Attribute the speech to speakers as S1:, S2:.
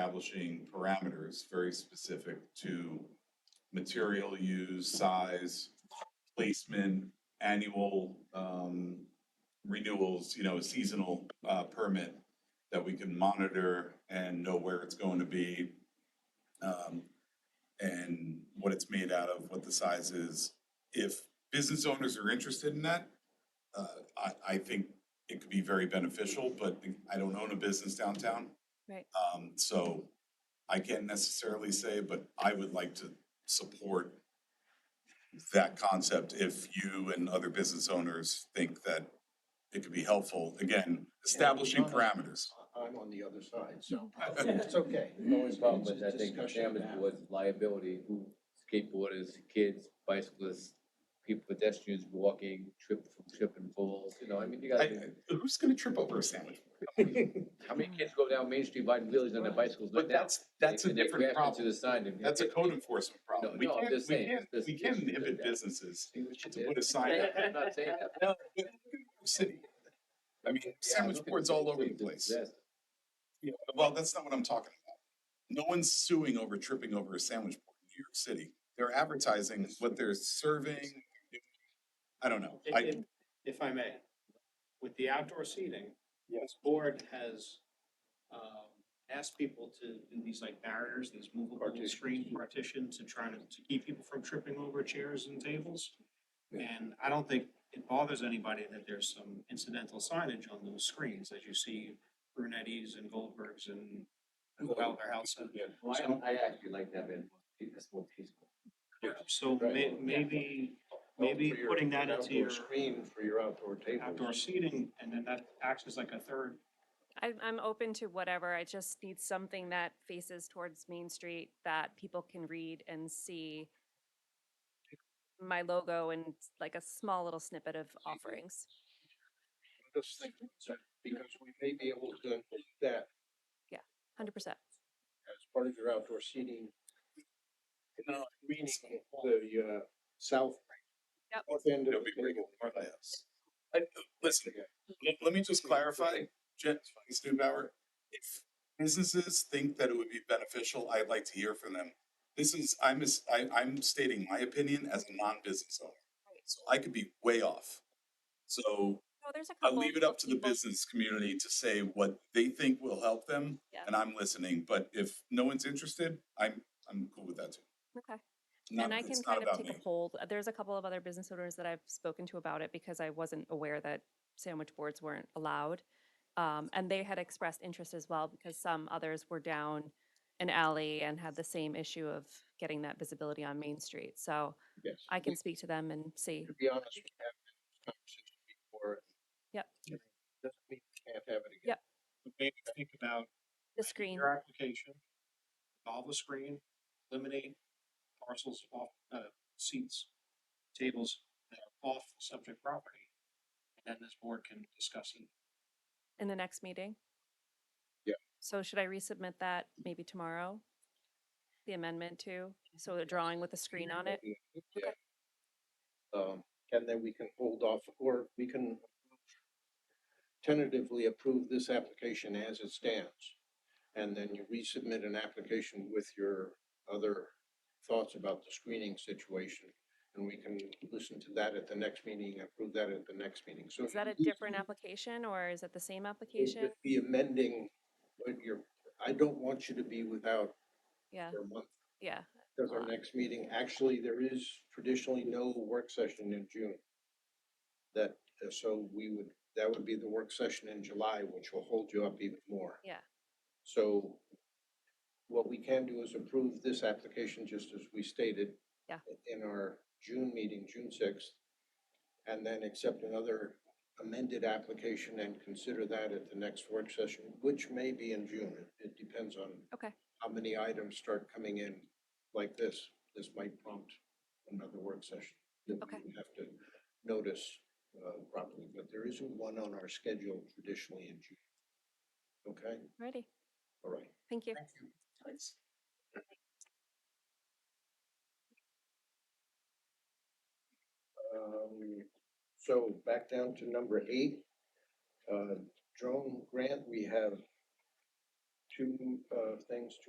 S1: establishing parameters very specific to material use, size, placement, annual, um, renewals, you know, a seasonal, uh, permit that we can monitor and know where it's going to be, um, and what it's made out of, what the size is. If business owners are interested in that, uh, I, I think it could be very beneficial, but I don't own a business downtown.
S2: Right.
S1: Um, so I can't necessarily say, but I would like to support that concept if you and other business owners think that it could be helpful. Again, establishing parameters.
S3: I'm on the other side, so
S1: I
S3: it's okay.
S4: The only problem
S3: It's
S4: is,
S3: a
S4: I think, the
S3: discussion to
S4: damage
S3: have.
S4: was liability, who, skateboarders, kids, bicyclists, people, pedestrians walking, trip, trip and falls, you know, I mean, you gotta, think,
S1: Who's gonna trip over a sandwich?
S4: how many kids go down Main Street riding wheelies on their bicycles right
S1: But
S4: now?
S1: that's, that's a
S4: And they
S1: different
S4: grab
S1: problem.
S4: into the sign and-
S1: That's a code enforcement problem.
S4: No,
S1: We
S4: no, I'm
S1: can't,
S4: just
S1: we
S4: saying,
S1: can't,
S4: this-
S1: we can't
S4: this-
S1: inhibit
S4: that-
S1: businesses
S4: See what you
S1: to
S4: did?
S1: put a sign up.
S4: I'm not saying that.
S1: No, but look at City. I mean,
S4: Yeah,
S1: sandwich
S4: look at
S1: boards
S4: it,
S1: all
S4: it's
S1: over
S4: a
S1: the place.
S4: disaster.
S1: Yeah, Well, that's not what I'm talking about. No one's suing over tripping over a sandwich board in New York City. They're advertising what they're serving. I don't know.
S5: If-
S1: I,
S5: If if I may, with the outdoor seating, this board has, um, asked people to do these like barriers, these movable
S3: Partitions.
S5: screen partitions to try to, to keep people from tripping over chairs and tables.
S3: Yeah.
S5: And I don't think it bothers anybody that there's some incidental signage on those screens, as you see Brunetti's and Goldberg's and Wilder House.
S3: Yeah.
S4: Well, I, I actually like that, man, it's more peaceful.
S5: So may, maybe, maybe
S3: For your-
S5: putting that
S3: your
S5: into
S3: outdoor
S5: your
S3: Screen for your outdoor table.
S5: outdoor seating, and then that acts as like a third
S2: I'm, I'm open to whatever. I just need something that faces towards Main Street that people can read and see my logo and s- like a small little snippet of offerings.
S3: Just think, so, because we may be able to include that
S2: Hundred percent.
S3: as part of your outdoor seating. No. Meaning the, uh, south.
S2: Yep.
S3: North end of
S1: it'll
S3: the
S1: be pretty
S3: table.
S1: good. I- Listen, let, let me just clarify, Jen, Stubauer, if businesses think that it would be beneficial, I'd like to hear from them. This is, I'm, as- I, am stating my opinion as a non-business owner. So I could be way off. So
S2: No, Oh, there's a
S1: I
S2: couple.
S1: leave it up to the
S2: people-
S1: business community to say what they think will help them,
S2: Yeah.
S1: and I'm listening, but if no one's interested, I'm, I'm cool with that too.
S2: Okay.
S1: Not-
S2: And I
S1: it's
S2: can
S1: not
S2: kind of
S1: about
S2: take a
S1: me.
S2: hold. Uh, There's a couple of other business owners that I've spoken to about it because I wasn't aware that sandwich boards weren't allowed. Um, and they had expressed interest as well because some others were down an alley and had the same issue of getting that visibility on Main Street. So
S3: Yes.
S2: I
S1: Mm.
S2: can speak to them and see.
S3: To be honest, we have had this conversation before.
S2: Yep.
S3: Doesn't mean we can't have it again.
S2: Yep.
S5: But maybe think about
S2: The screen,
S5: your application, all the screen, eliminate parcels off, uh, seats, tables that are off subject property. And then this board can discuss it.
S2: in the next meeting?
S3: Yeah.
S2: So should I resubmit that maybe tomorrow? The amendment too? So a drawing with a screen on it?
S3: Yeah. Um, and then we can hold off, or we can tentatively approve this application as it stands. And then you resubmit an application with your other thoughts about the screening situation. And we can listen to that at the next meeting, approve that at the next meeting, so.
S2: Is that a different application or is it the same application?
S3: application? Be amending, but you're, I don't want you to be without
S2: Yeah,
S3: your month
S2: yeah.
S3: Does our
S2: Uh,
S3: next meeting, actually, there is traditionally no work session in June. That, uh, so we would, that would be the work session in July, which will hold you up even more.
S2: Yeah.
S3: So what we can do is approve this application just as we stated.
S2: Yeah.
S3: In our June meeting, June sixth, and then accept another amended application and consider that at the next work session, which may be in June. It- It depends on
S2: Okay.
S3: how many items start coming in like this, this might prompt another work session. that we
S2: Okay.
S3: would Have to notice uh, properly, but there isn't one on our schedule traditionally in June. Okay,
S2: Ready.
S3: all right.
S2: Thank you.
S3: Um, So back down to number eight, uh, drone grant, we have two, uh, things to